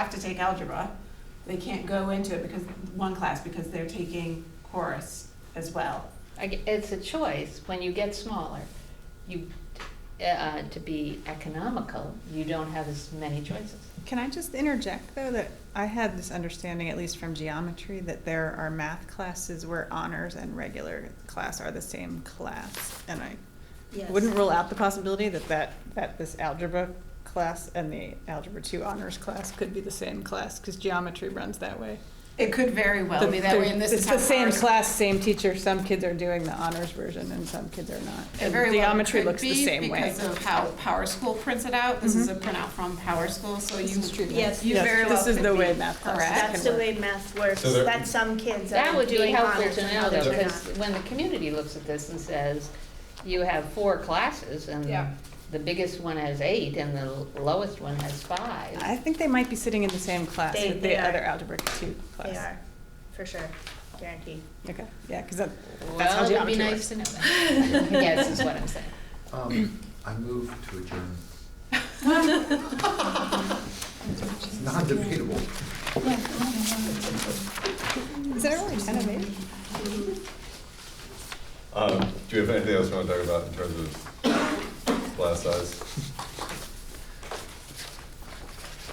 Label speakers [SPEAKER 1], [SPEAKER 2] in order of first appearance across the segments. [SPEAKER 1] have to take algebra. They can't go into it because, one class, because they're taking chorus as well.
[SPEAKER 2] I g- It's a choice, when you get smaller, you, uh, to be economical, you don't have as many choices.
[SPEAKER 3] Can I just interject though that I had this understanding, at least from geometry, that there are math classes where honors and regular class are the same class, and I wouldn't rule out the possibility that that, that this algebra class and the algebra two honors class could be the same class because geometry runs that way.
[SPEAKER 1] It could very well
[SPEAKER 3] The-
[SPEAKER 1] be that way, and this is how
[SPEAKER 3] It's the same
[SPEAKER 1] ours-
[SPEAKER 3] class, same teacher. Some kids are doing the honors version and some kids are not.
[SPEAKER 1] It
[SPEAKER 3] And
[SPEAKER 1] very well
[SPEAKER 3] geometry
[SPEAKER 1] could
[SPEAKER 3] looks the
[SPEAKER 1] be
[SPEAKER 3] same way.
[SPEAKER 1] Because of how Power School prints it out, this is a printout from Power School, so you,
[SPEAKER 4] Yes.
[SPEAKER 1] you
[SPEAKER 3] Yes,
[SPEAKER 1] very well
[SPEAKER 3] This is
[SPEAKER 1] could
[SPEAKER 3] the
[SPEAKER 1] be
[SPEAKER 3] way math classes
[SPEAKER 1] correct.
[SPEAKER 3] can
[SPEAKER 4] That's the
[SPEAKER 3] work.
[SPEAKER 4] way math works,
[SPEAKER 5] So there-
[SPEAKER 4] that some kids
[SPEAKER 2] That
[SPEAKER 4] are
[SPEAKER 2] would be
[SPEAKER 4] doing
[SPEAKER 2] helpful
[SPEAKER 4] honors
[SPEAKER 2] to
[SPEAKER 4] and
[SPEAKER 2] know
[SPEAKER 4] others
[SPEAKER 2] though,
[SPEAKER 4] are not.
[SPEAKER 2] because when the community looks at this and says, you have four classes and
[SPEAKER 1] Yeah.
[SPEAKER 2] the biggest one has eight and the l- lowest one has five.
[SPEAKER 3] I think they might be sitting in the same class
[SPEAKER 4] They-
[SPEAKER 3] with
[SPEAKER 4] they
[SPEAKER 3] the
[SPEAKER 4] are.
[SPEAKER 3] other algebra two class.
[SPEAKER 4] They are, for sure, guaranteed.
[SPEAKER 3] Okay, yeah, because that, that's how
[SPEAKER 2] Well, it'd be
[SPEAKER 3] geometry
[SPEAKER 2] nice
[SPEAKER 3] works.
[SPEAKER 2] to know that. Yes, is what I'm saying.
[SPEAKER 6] Um, I move to adjourn. It's non-debatable.
[SPEAKER 3] Is that really ten of eight?
[SPEAKER 5] Um, do you have anything else you want to talk about in terms of class size?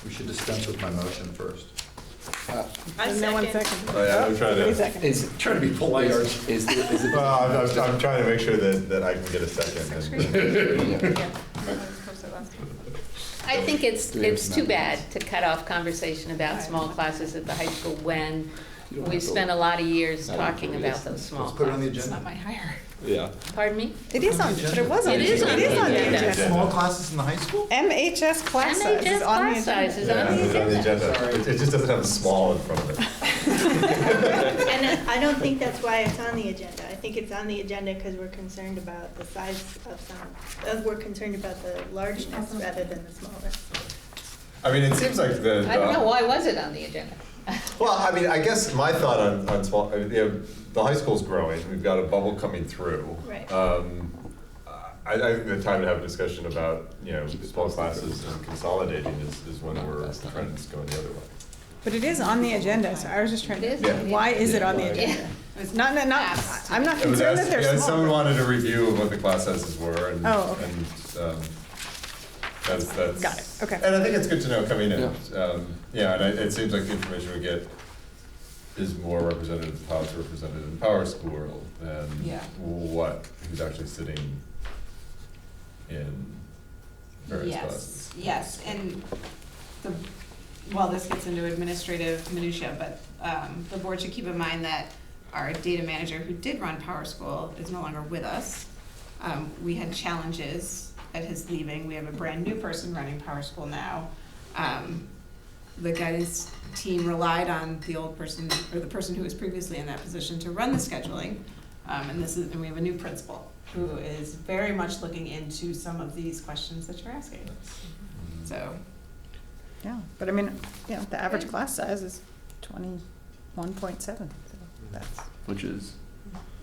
[SPEAKER 6] We should dispense with my motion first.
[SPEAKER 3] No one second.
[SPEAKER 5] Oh, yeah, I'm trying to-
[SPEAKER 3] Wait a second.
[SPEAKER 7] Is,
[SPEAKER 6] Trying to be polite, Arch.
[SPEAKER 7] is, the- is
[SPEAKER 5] Well,
[SPEAKER 7] it,
[SPEAKER 5] I'm, I'm- I'm trying to make sure that, that I can get a second.
[SPEAKER 2] I think it's,
[SPEAKER 7] Do we have
[SPEAKER 2] it's
[SPEAKER 7] some
[SPEAKER 2] too bad
[SPEAKER 7] amendments?
[SPEAKER 2] to cut off conversation about small classes at the high school when
[SPEAKER 7] You don't have
[SPEAKER 2] we've
[SPEAKER 7] to-
[SPEAKER 2] spent a lot of years
[SPEAKER 7] I don't know
[SPEAKER 2] talking
[SPEAKER 7] what it
[SPEAKER 2] about
[SPEAKER 7] is.
[SPEAKER 2] those small
[SPEAKER 6] Let's put it on the
[SPEAKER 2] classes.
[SPEAKER 6] agenda.
[SPEAKER 1] hire.
[SPEAKER 5] Yeah.
[SPEAKER 2] Pardon me?
[SPEAKER 3] It is on, but it was on.
[SPEAKER 2] It is on the agenda.
[SPEAKER 6] Small classes in the high school?
[SPEAKER 3] MHS class size
[SPEAKER 2] MHS
[SPEAKER 3] is on
[SPEAKER 2] class
[SPEAKER 3] the agenda.
[SPEAKER 2] size is on
[SPEAKER 5] it's
[SPEAKER 2] the agenda.
[SPEAKER 5] It it just doesn't have small in front of it.
[SPEAKER 4] And uh, I don't think that's why it's on the agenda. I think it's on the agenda because we're concerned about the size of some, uh, we're concerned about the largeness rather than the smallness.
[SPEAKER 5] I mean, it seems like the.
[SPEAKER 2] I don't know,
[SPEAKER 5] the-
[SPEAKER 2] why was it on the agenda?
[SPEAKER 5] Well, I mean, I guess my thought on, on small, uh, you know, the high school's growing, we've got a bubble coming through.
[SPEAKER 4] Right.
[SPEAKER 5] Um, I, I think the time to have a discussion about, you know, small classes and consolidating is, is when we're trends going the other way.
[SPEAKER 3] But it is on the agenda, so I was just trying
[SPEAKER 2] It is
[SPEAKER 3] to,
[SPEAKER 2] on the
[SPEAKER 3] why is it on the
[SPEAKER 7] Yeah.
[SPEAKER 3] agenda?
[SPEAKER 1] It was
[SPEAKER 3] Not, not- not,
[SPEAKER 1] asked.
[SPEAKER 3] I'm not
[SPEAKER 5] It was
[SPEAKER 3] concerned
[SPEAKER 5] asked-
[SPEAKER 3] that
[SPEAKER 5] yeah,
[SPEAKER 3] they're
[SPEAKER 5] Someone
[SPEAKER 3] small.
[SPEAKER 5] wanted a review of what the class sizes were and,
[SPEAKER 3] Oh, okay.
[SPEAKER 5] and, um, that's, that's.
[SPEAKER 3] Got it, okay.
[SPEAKER 5] And I think it's good to know coming in, um, yeah, and I- it seems like the information we get is more representative of how it's represented in Power School than
[SPEAKER 1] Yeah.
[SPEAKER 5] what, who's actually sitting in various classes.
[SPEAKER 1] Yes, yes, and the, well, this gets into administrative minutia, but um, the board should keep in mind that our data manager who did run Power School is no longer with us. Um, We had challenges at his leaving, we have a brand-new person running Power School now. Um, The guidance team relied on the old person, or the person who was previously in that position to run the scheduling. Um, and this is, and we have a new principal who is very much looking into some of these questions that you're asking. So,
[SPEAKER 3] Yeah, but I mean, you know, the average class size is twenty-one point seven, so that's,
[SPEAKER 7] which is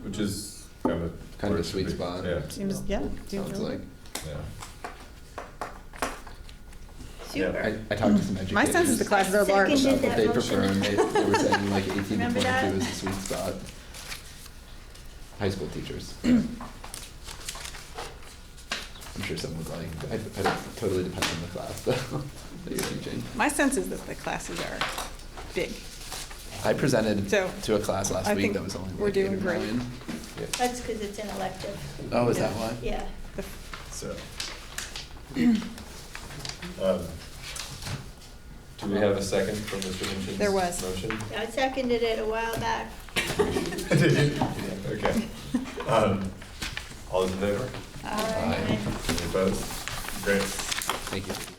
[SPEAKER 5] Which is kind of.
[SPEAKER 7] Kind of
[SPEAKER 5] where
[SPEAKER 7] a
[SPEAKER 5] it
[SPEAKER 7] sweet
[SPEAKER 5] should be.
[SPEAKER 7] spot.
[SPEAKER 5] Yeah,
[SPEAKER 3] seems, yeah. seems
[SPEAKER 7] sounds
[SPEAKER 3] really-
[SPEAKER 7] like.
[SPEAKER 5] yeah.
[SPEAKER 4] Super.
[SPEAKER 7] I, I talked to some educators.
[SPEAKER 3] My sense is the classes are large.
[SPEAKER 4] Seconded
[SPEAKER 7] About what they
[SPEAKER 4] that
[SPEAKER 7] prefer,
[SPEAKER 4] motion.
[SPEAKER 7] and they, they were saying like eighteen to
[SPEAKER 4] Remember that?
[SPEAKER 7] twenty-two is the sweet spot. High school teachers. I'm sure some would like, I, I totally depends on the class though, that you're teaching.
[SPEAKER 3] My sense is that the classes are big.
[SPEAKER 7] I presented
[SPEAKER 3] So,
[SPEAKER 7] to a class
[SPEAKER 3] I
[SPEAKER 7] last
[SPEAKER 3] think
[SPEAKER 7] week that was only
[SPEAKER 3] we're
[SPEAKER 7] like eight
[SPEAKER 3] doing
[SPEAKER 7] or
[SPEAKER 3] great.
[SPEAKER 7] nine.
[SPEAKER 4] That's because it's an elective,
[SPEAKER 7] Oh, is that why?
[SPEAKER 4] yeah.
[SPEAKER 3] The
[SPEAKER 5] So. Um, Do we have a second for Mr. Minchin's?
[SPEAKER 3] There was.
[SPEAKER 5] Motion?
[SPEAKER 4] I seconded it a while back.
[SPEAKER 5] Did you? Okay. Um, All those in favor?
[SPEAKER 4] All right.
[SPEAKER 5] Any opposed? Great.
[SPEAKER 7] Thank you.